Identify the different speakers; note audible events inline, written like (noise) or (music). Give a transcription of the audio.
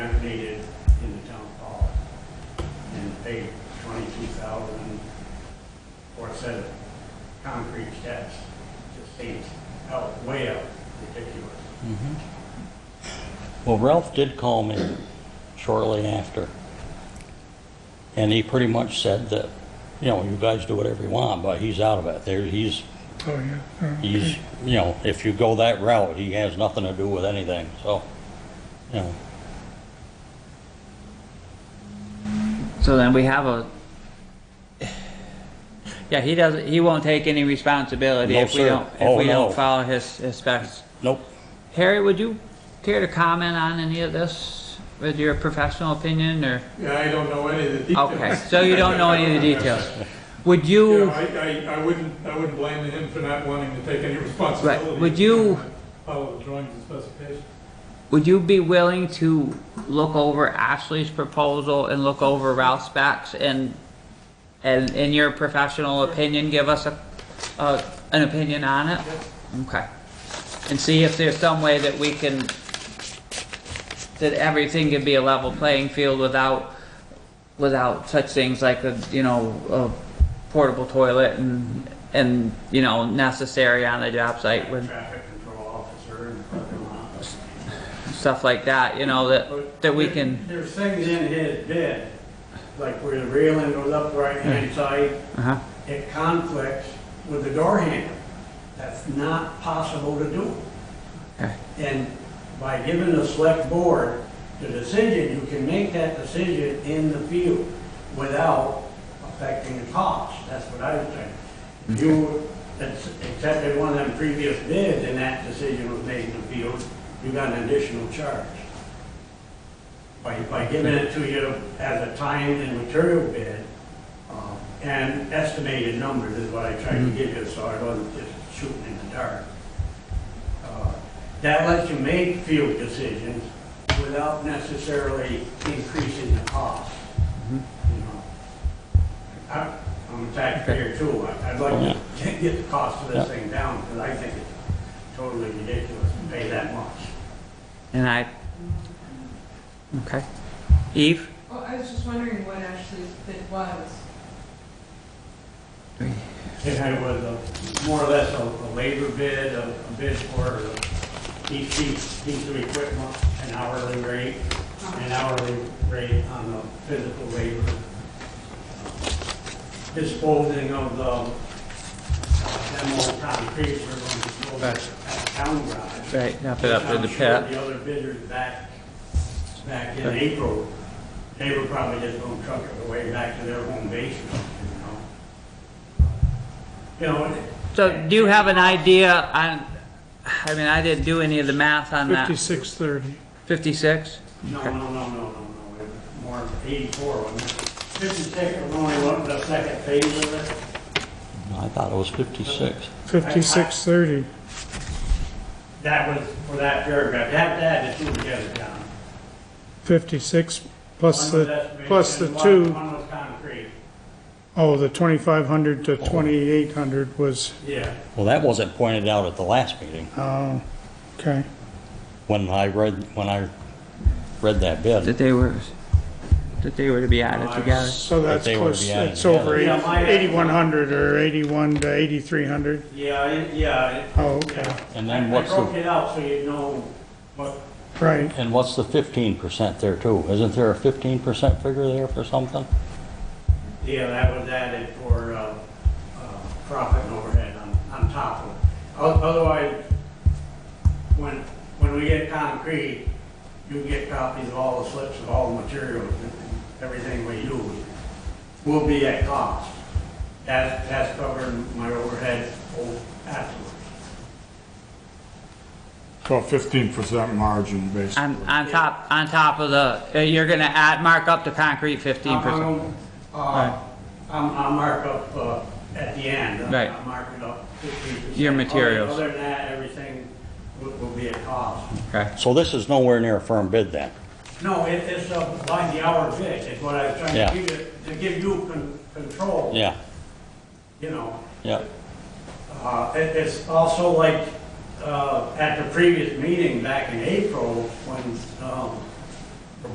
Speaker 1: Well, Ralph did call me shortly after, and he pretty much said that, you know, you guys do whatever you want, but he's out of it. There, he's,
Speaker 2: Oh, yeah. Oh,
Speaker 1: he's, you know, if you go that route, he has nothing to do with anything, so, you know.
Speaker 3: So then we have a. Yeah, he doesn't. He won't take any responsibility
Speaker 1: No,
Speaker 3: if we
Speaker 1: sir.
Speaker 3: don't if
Speaker 1: Oh,
Speaker 3: we
Speaker 1: no.
Speaker 3: don't follow his, his specs.
Speaker 1: Nope.
Speaker 3: Harry, would you care to comment on any of this with your professional opinion, or
Speaker 4: Yeah, I don't know any of the details.
Speaker 3: okay? So you don't know any of the details. Would
Speaker 4: You
Speaker 3: you?
Speaker 4: know, I, I, I wouldn't, I wouldn't blame him for not wanting to take any responsibility.
Speaker 3: Right, would you-
Speaker 4: Follow the drawings and specifications.
Speaker 3: Would you be willing to look over Ashley's proposal and look over Ralph's specs and, and in your professional opinion, give us a, a, an opinion on it? Okay. And see if there's some way that we can, that everything can be a level playing field without, without such things like a, you know, a portable toilet and, and, you know, necessary on the job site with
Speaker 5: traffic control officer in the parking lot.
Speaker 3: stuff like that, you know, that,
Speaker 5: But
Speaker 3: that we
Speaker 5: there-
Speaker 3: can,
Speaker 5: There's things in his bid, like where the railing goes up the right-hand side,
Speaker 3: uh-huh.
Speaker 5: it conflicts with the door handle. That's not possible to do.
Speaker 3: Okay.
Speaker 5: And by giving the select board the decision, you can make that decision in the field without affecting the cost. That's what I was saying. If you ex- accepted one of them previous bids and that decision was made in the field, you got an additional charge. By, by giving it to you as a time and material bid, um, and estimated numbers is what I tried to give you, so I wasn't just shooting in the dark. Uh, That lets you make field decisions without necessarily increasing the cost. You know, I- I'm a taxpayer too, I- I'd like to (laughs) get the cost of this thing down, because I think it's totally ridiculous to pay that much.
Speaker 3: And I, okay. Eve?
Speaker 6: Well, I was just wondering what Ashley's bid was.
Speaker 5: And it was a, more or less a, a labor bid, a a bid for each piece, piece of equipment, an hourly rate, an hourly rate on the physical labor. Disposing of the uh, demo concrete, we're going to dispose of at the town garage.
Speaker 3: Right, wrap
Speaker 5: I'm sure The other bidders back, back in
Speaker 3: Right.
Speaker 5: April, they were probably just gonna truck it away back to their home base or something, you know? You know, it-
Speaker 3: So do you have an idea on, I mean, I didn't do any of the math on that.
Speaker 2: 5630.
Speaker 3: Fifty-six?
Speaker 5: no, no, no, no, no, no, it was more than eighty-four, wasn't it? Fifty-six was only one, the second phase of it.
Speaker 1: I thought it was 56.
Speaker 2: 5630.
Speaker 5: That was for that paragraph, that, that, the two together, John.
Speaker 2: 56 plus
Speaker 5: One was
Speaker 2: the,
Speaker 5: estimated
Speaker 2: plus the
Speaker 5: and one-
Speaker 2: two.
Speaker 5: One was concrete,
Speaker 2: Oh, the 2,500 to 2,800 was,
Speaker 5: yeah.
Speaker 1: Well, that wasn't pointed out at the last meeting,
Speaker 2: oh, okay.
Speaker 1: when I read, when I read that bid.
Speaker 3: That they were, that they were to be added together.
Speaker 2: So that's
Speaker 1: they were
Speaker 2: close,
Speaker 1: behind
Speaker 2: it's
Speaker 1: the
Speaker 2: over
Speaker 1: other.
Speaker 2: eight-
Speaker 5: Yeah, my-
Speaker 2: 8,100 or 81 to 8,300.
Speaker 5: Yeah, it- yeah. it-
Speaker 2: Oh, okay.
Speaker 5: yeah.
Speaker 1: And then
Speaker 5: I-
Speaker 1: what's the-
Speaker 5: I broke it out so you know what,
Speaker 2: Right,
Speaker 1: And what's the 15% there too? Isn't there a 15% figure there for something?
Speaker 5: yeah, that was added for, uh, uh, profit and overhead on, on top of it. O- Otherwise, when, when we get concrete, you get copies of all the slips of all the materials and everything we use. Will be at cost. That's, that's covering my overhead oh, o- afterwards.
Speaker 7: So fifteen percent margin, basically.
Speaker 3: On, on top, on top of the, uh, you're gonna add, mark up the concrete fifteen percent.
Speaker 5: I'll- I'll- Uh, I'm, I'll mark up, uh, at the end. I'll-
Speaker 3: Right.
Speaker 5: I'll mark it up 15%.
Speaker 3: Your materials.
Speaker 5: Other than that, everything will, will be at cost.
Speaker 3: Okay.
Speaker 1: So this is nowhere near a firm bid then?
Speaker 5: No, it, it's a by the hour bid, is what I was trying
Speaker 1: Yeah.
Speaker 5: to give you, to give you con- control.
Speaker 1: Yeah,
Speaker 5: You know,
Speaker 1: yeah.
Speaker 5: uh, it, it's also like, uh, at the previous meeting back in April, when, um,